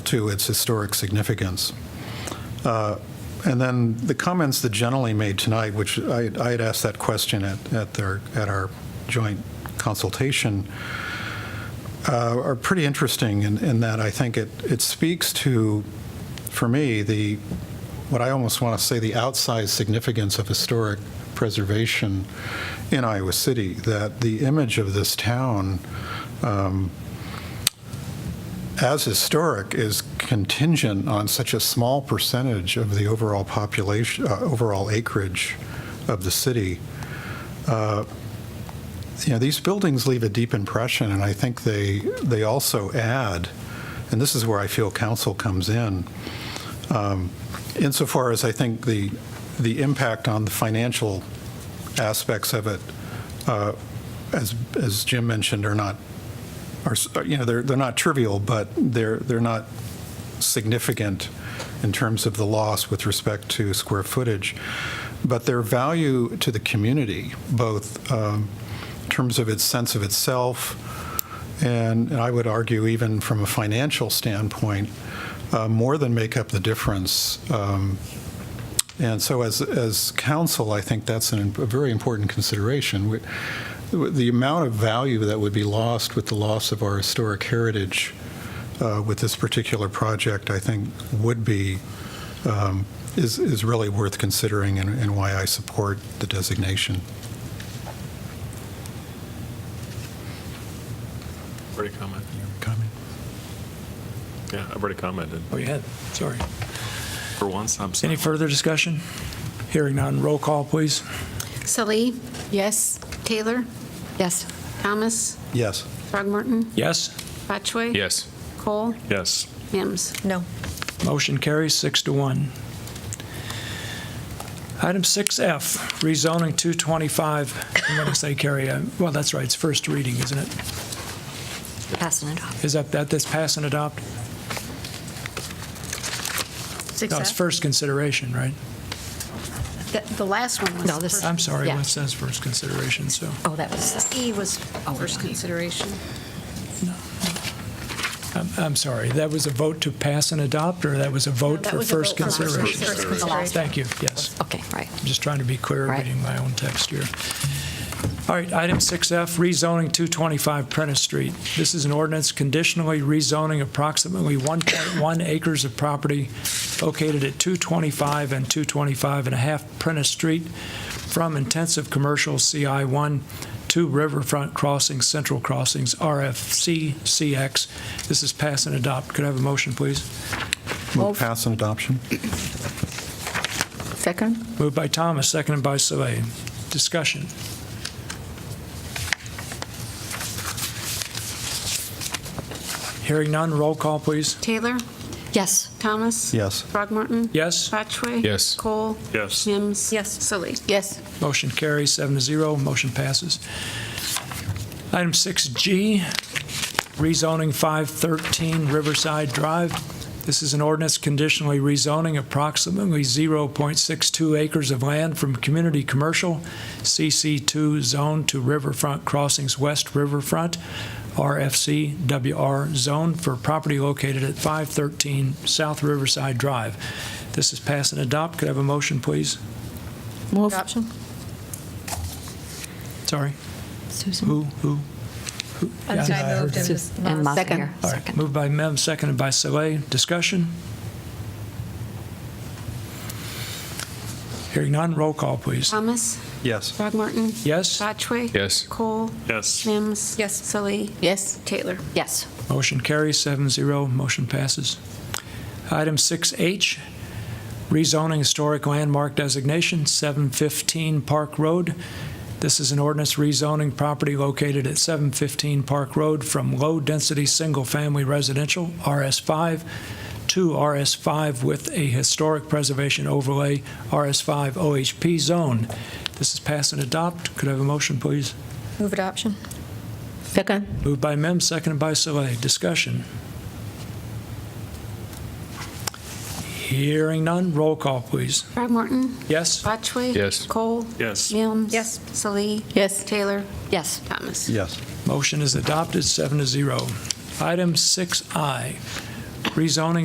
to its historic significance. Uh, And then the comments that generally made tonight, which I I had asked that question at at their, at our joint consultation, uh, are pretty interesting in in that I think it it speaks to, for me, the, what I almost want to say, the outsized significance of historic preservation in Iowa City, that the image of this town um, as historic is contingent on such a small percentage of the overall population, uh, overall acreage of the city. Uh, You know, these buildings leave a deep impression, and I think they, they also add, and this is where I feel council comes in, um, insofar as I think the, the impact on the financial aspects of it, uh, as, as Jim mentioned, are not are, s- you know, they're, they're not trivial, but they're, they're not significant in terms of the loss with respect to square footage. But their value to the community, both um, in terms of its sense of itself, and and I would argue even from a financial standpoint, uh, more than make up the difference. Um, And so as, as council, I think that's an- a very important consideration. We- the amount of value that would be lost with the loss of our historic heritage uh, with this particular project, I think, would be, um, is is really worth considering and- and why I support the designation. Already commented. Comment? Yeah, I've already commented. Oh, you had, sorry. For once, I'm Any sorry. further discussion? Hearing none, roll call, please. Salee, Yes. Taylor, Yes. Thomas, Yes. Throgmorton, Yes, Botchway. Yes. Cole, Yes. Mims. No. motion carries six to one. Item 6F, rezoning 225, I'm going to say carry, uh, well, that's right, it's first reading, isn't it? Pass and adopt. Is that, that this pass and adopt? No, it's first consideration, right? The the last one was. No, this- first- I'm sorry, yeah. it says first consideration, so. Oh, that was, E was Oh, first yeah. consideration. I'm- I'm sorry, that was a vote to pass and adopt, or that was a vote That for was a vote first for last- consideration? first The consideration. last Thank you, yes. okay, right. I'm just trying to be clear, Right. reading my own text here. All right, item 6F, rezoning 225 Prentice Street. This is an ordinance conditionally rezoning approximately 1.1 acres of property located at 225 and 225 and a half Prentice Street from intensive commercial CI1 to Riverfront Crossings, Central Crossings, RFC CX. This is pass and adopt. Could I have a motion, please? Move pass and adoption? Second? Moved by Thomas, seconded by Soleil. Discussion. Hearing none, roll call, please. Taylor, Yes. Thomas. Yes. Throgmorton. Yes, Botchway. Yes. Cole, Yes. Mims. Yes. Salee. Yes. motion carries, seven to zero, motion passes. Item 6G, rezoning 513 Riverside Drive. This is an ordinance conditionally rezoning approximately 0.62 acres of land from community commercial CC2 zone to Riverfront Crossings West Riverfront, RFC WR zone for property located at 513 South Riverside Drive. This is pass and adopt. Could I have a motion, please? Move. Adoption? Sorry, Susan? who, who? who? Yeah, I heard that. And Uh, Second. All right, moved by Mem, seconded by Soleil. Discussion? Hearing none, roll call, please. Thomas, Yes. Throgmorton, Yes, Botchway. Yes. Cole, Yes. Mims. Yes. Salee, Yes. Taylor. Yes. motion carries, seven zero, motion passes. Item 6H, rezoning historic landmark designation, 715 Park Road. This is an ordinance rezoning property located at 715 Park Road from low-density single-family residential, RS5, to RS5 with a historic preservation overlay, RS5 OHP zone. This is pass and adopt. Could I have a motion, please? Move adoption? Second? Moved by Mem, seconded by Soleil. Discussion. Hearing none, roll call, please. Throgmorton, Yes? Botchway. Yes. Cole, Yes. Mims. Yes. Salee, Yes. Taylor, Yes. Thomas. Yes. Motion is adopted, seven to zero. Item 6I, rezoning